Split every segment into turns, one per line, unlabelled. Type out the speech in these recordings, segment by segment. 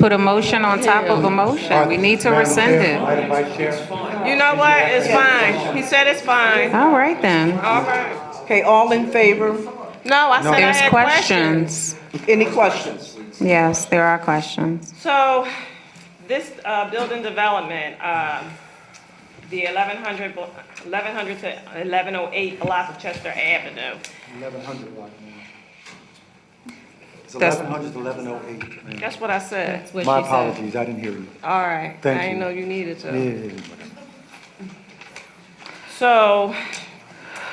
put a motion on top of a motion. We need to
Madam
rescind
Chair,
it.
Madam Vice Chair,
You know what? It's fine. He said it's fine.
All right then.
All right.
Okay, all in favor?
No, I said I
There's
had questions.
questions.
Any questions?
Yes, there are questions.
So, this, uh, building development, uh, the 1100 blo- 1100 to eleven oh eight block of Chester Avenue.
1100 block. ma'am. It's
That's-
1100 to 1108. ma'am.
That's what I said.
What
oh My
she said.
apologies, I didn't hear you.
All right. I
Thank
didn't
you.
know you needed to.
Yeah.
So,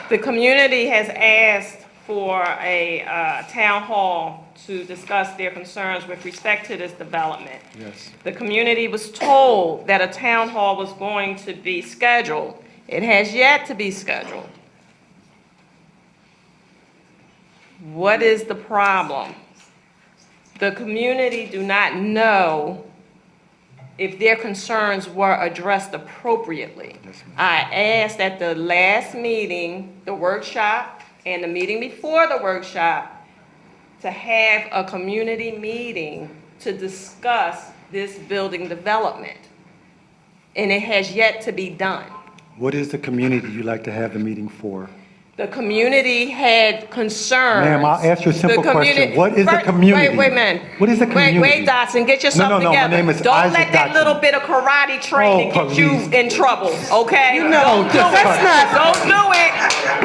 the community has asked for a uh, town hall to discuss their concerns with respect to this development.
Yes.
The community was told that a town hall was going to be scheduled. It has yet to be scheduled. What is the problem? The community do not know if their concerns were addressed appropriately.
Yes, ma'am.
I asked at the last meeting, the workshop, and the meeting before the workshop, to have a community meeting to discuss this building development. And it has yet to be done.
What is the community you'd like to have the meeting for?
The community had concerns.
Ma'am, I'll ask you a simple
The
question.
communi-
What is the
Fir-
community?
Wait, wait, man.
What is the
Wait,
community?
wait, Dotson, get yourself
no,
together.
my name is
Don't
Isaac
let that
Dotson.
little bit of karate training
Oh,
get you
please.
in trouble, okay? You
know,
Don't do
just
it.
cut.
Don't do it.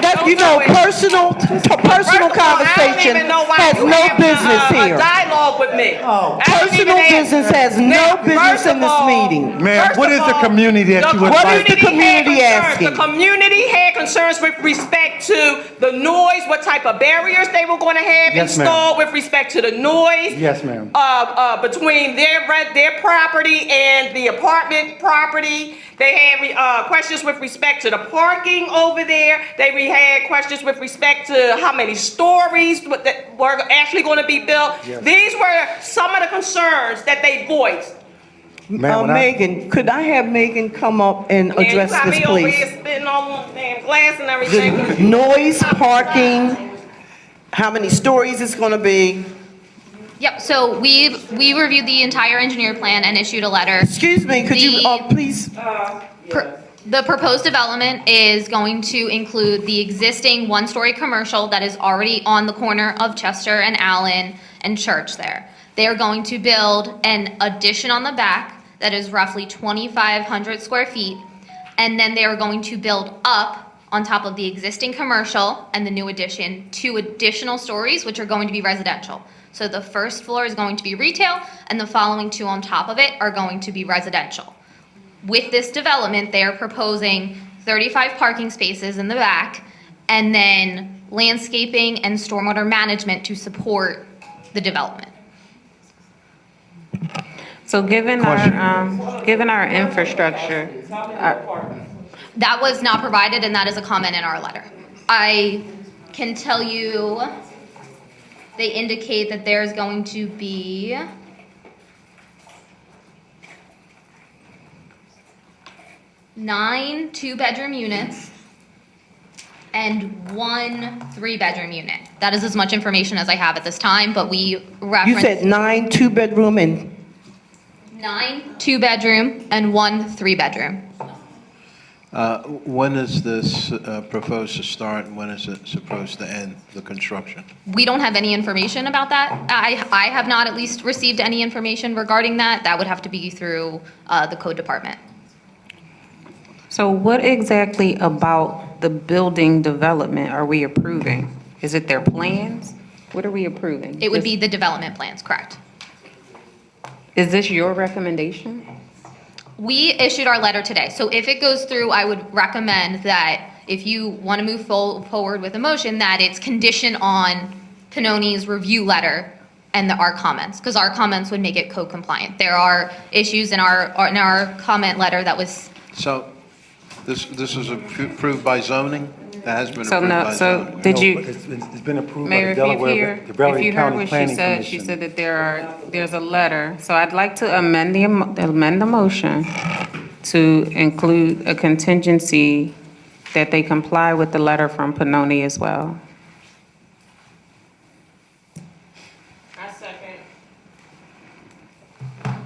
That,
Don't
you
do
know,
it.
personal, to personal
First of all, I don't
conversation
even know why
has
you uh,
no
having a-
business
a- a
here.
Dialogue with me.
Oh.
I don't even
Personal
ask-
business has no
Now,
business
first
in
of
this
all-
meeting.
Ma'am,
first
what
of
is the
all,
community that you would
What is the
community
community
had concerns.
asking?
The community had concerns with respect to the noise, what type of barriers they were going to have
Yes, ma'am.
installed with respect to the noise.
Yes, ma'am.
Uh, uh, between their rent, their property and the apartment property. They had, uh, questions with respect to the parking over there. They re- had questions with respect to how many stories what that were actually gonna be built.
Yes.
These were some of the concerns that they voiced.
Ma'am,
Uh,
when I-
Megan, could I have Megan come up and
Man, you
address
got
this,
me over here
please?
Spitting on damn glass and
The
everything.
noise, parking, how many stories it's gonna be?
Yep, so we, we reviewed the entire engineer plan and issued a letter.
Excuse me, could you,
The-
uh, please?
Pr- The proposed development is going to include the existing one-story commercial that is already on the corner of Chester and Allen and Church there. They are going to build an addition on the back that is roughly 2,500 square feet. And then they are going to build up on top of the existing commercial and the new addition, two additional stories, which are going to be residential. So the first floor is going to be retail, and the following two on top of it are going to be residential. With this development, they are proposing 35 parking spaces in the back and then landscaping and stormwater management to support the development.
So given our, um, given our infrastructure, uh,
That was not provided and that is a comment in our letter. I can tell you, they indicate that there's going to be nine two-bedroom units and one three-bedroom unit. That is as much information as I have at this time, but we
You said
referenced
nine two-bedroom and,
nine two-bedroom and one three-bedroom.
Uh, When is this uh, proposed to start, and when is it supposed to end, the construction?
We don't have any information about that. I, I have not at least received any information regarding that. That would have to be through uh, the code department.
so what exactly about the building development are we approving? Is it their plans? What are we approving?
It would be the development plans, correct?
Is this your recommendation?
We issued our letter today, so if it goes through, I would recommend that if you want to move fol- forward with a motion, that it's conditioned on Pinoni's review letter and the, our comments, because our comments would make it code compliant. There are issues in our, in our comment letter that was
So this, this is appro- approved by zoning? That has been
So
approved
no,
by
so
zoning?
did
No,
you,
It's it's- it's been approved by
Mayor,
the
if you
Delaware,
hear,
the
if
Delaware
you heard
County
what she
Planning
said, she said
Commission.
that there are, there's a letter. So I'd like to amend the, am- amend the motion to include a contingency that they comply with the letter from Panoni as well.